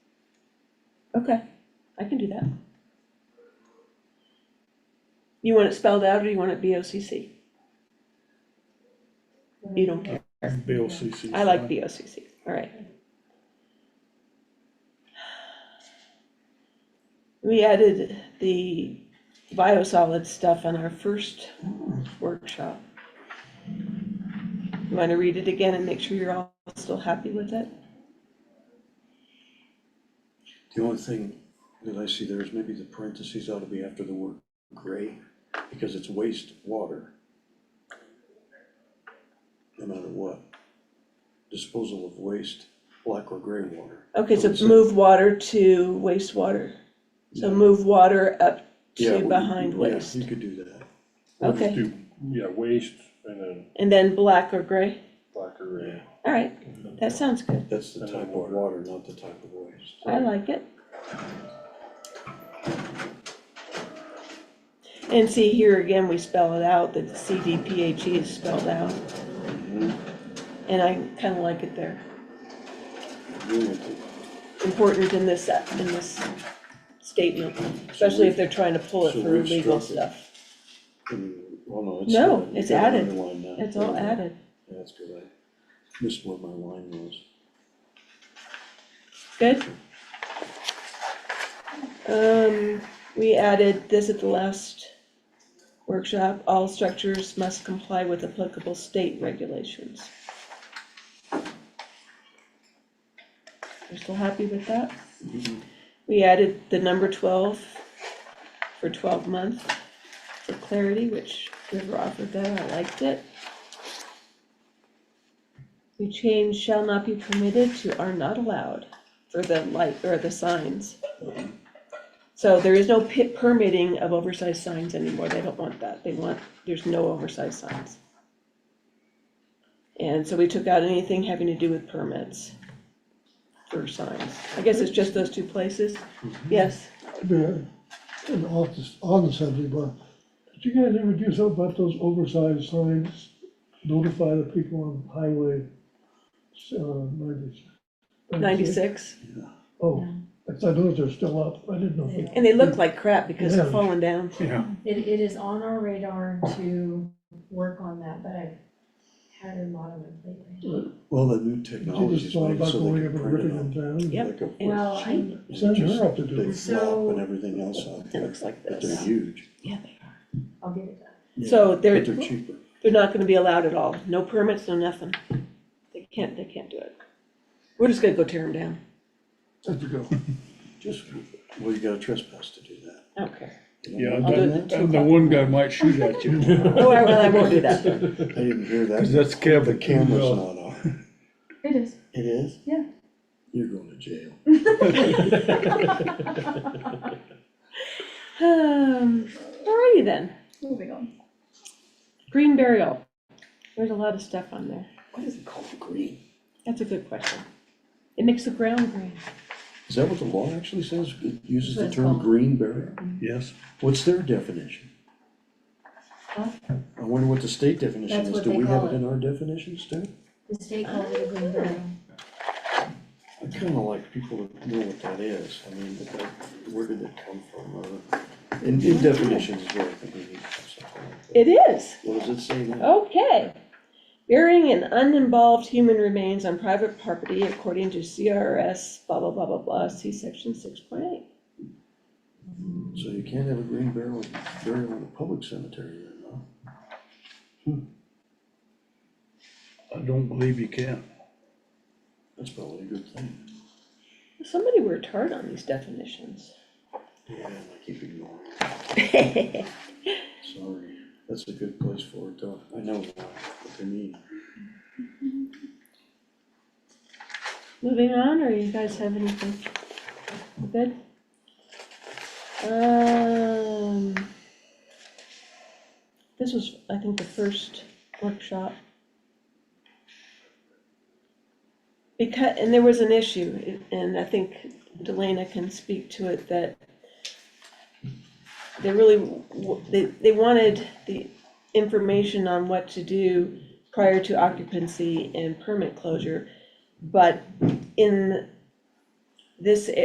Okay, I can do that. You want it spelled out or you want it B O C C? You don't care. BOCC. I like B O C C, all right. We added the biosolid stuff on our first workshop. You Want to read it again and make sure you're all still happy with it? The only thing that I see there is maybe the parentheses ought to be after the word gray, because it's wastewater. No matter what. Disposal of waste, black or gray water. Okay, so Don't say- move water to wastewater. So move water up Yeah, well, to you- behind yeah, waste. You could do that. We'll just Okay. do, yeah, waste and then And then black or gray? black or red. All right, that sounds good. That's the And type then of water. water, not the type of waste. I like it. And see, here again, we spell it out, that CDPHE E is spelled out, Mm-hmm. and I kind of like it there. Agree with it. Important in this, in this statement, especially if they're trying to pull it So for we've legal struck it. stuff. And- Well, Oh, no, it's. No, not. You it's got it added. underlined now. It's all added. Yeah, That's good. I missed where my line was. Good. Um, we added this at the last workshop, all structures must comply with applicable state regulations. You're still happy with that? We added the number twelve for twelve month for clarity, which whoever offered that, I liked it. We changed shall not be permitted to are not allowed for the light or the signs. So there is no pit permitting of oversized signs anymore, they don't want that, they want, there's no oversized signs. And so we took out anything having to do with permits for signs, I guess it's just those two places, yes, Yeah, and off the, on the subject, but did you guys ever do something about those oversized signs? Notify the people on highway, uh, ninety. ninety-six. Oh, I thought those are still up, I didn't know. if they- And they look like crap because they're Yeah. falling down, Yeah. It, it is on our radar to work on that, but I've had a lot on my plate. right now. Well, the new She technology just is thought making about so they going can up and print ripping it them on. down. Yep. like a Yeah. Well, I, It's Send her just up to do big it. flop and everything else out it there, looks like but they're this, huge, yeah, they are. I'll get it done. So but they're, they're cheaper. They're not gonna be allowed at all, no permits, no nothing. They can't, they can't do it. We're just gonna go tear them down, Have to go. Just, well, you gotta trespass to do that. I don't care. You Yeah, know, I'll do it and at the- two and the o'clock. one guy might shoot at you. Oh, I, well, I won't do that, I didn't hear that. 'Cause that's Kevin. The camera's Yeah. not on. It is, It is? Yeah. You're going to jail. um, alrighty then, moving on. green burial, there's a lot of stuff on there, Why is it called green? that's a good question. It makes the ground green, Is that what the law actually says? It uses the That's term called- green barrier? Mm-hmm. Yes. What's their definition? Huh? I wonder what the state definition That's is. what Do they we have call it it. in our definitions too? The state called it a green burial. I kinda like people to know what that is, I mean, like, where did it come from, uh, in, in definitions is where I think we need to have something like that. it is, What does it say now? Oh. okay. Burying an uninvolved human remains on private property according to CRS blah blah blah blah blah, see section six point eight. So you can't have a green burial, burial in a public cemetery then, no? I don't believe you can. That's probably a good thing. Somebody worked hard on these definitions. Yeah, and I keep ignoring it, sorry, that's a good place for it, though, I know now what they mean. Moving on, or you guys have anything? You Good? Um. This was, I think, the first workshop. Because, and there was an issue, and I think Delana can speak to it, that they really, w- they, they wanted the information on what to do prior to occupancy and permit closure. But in this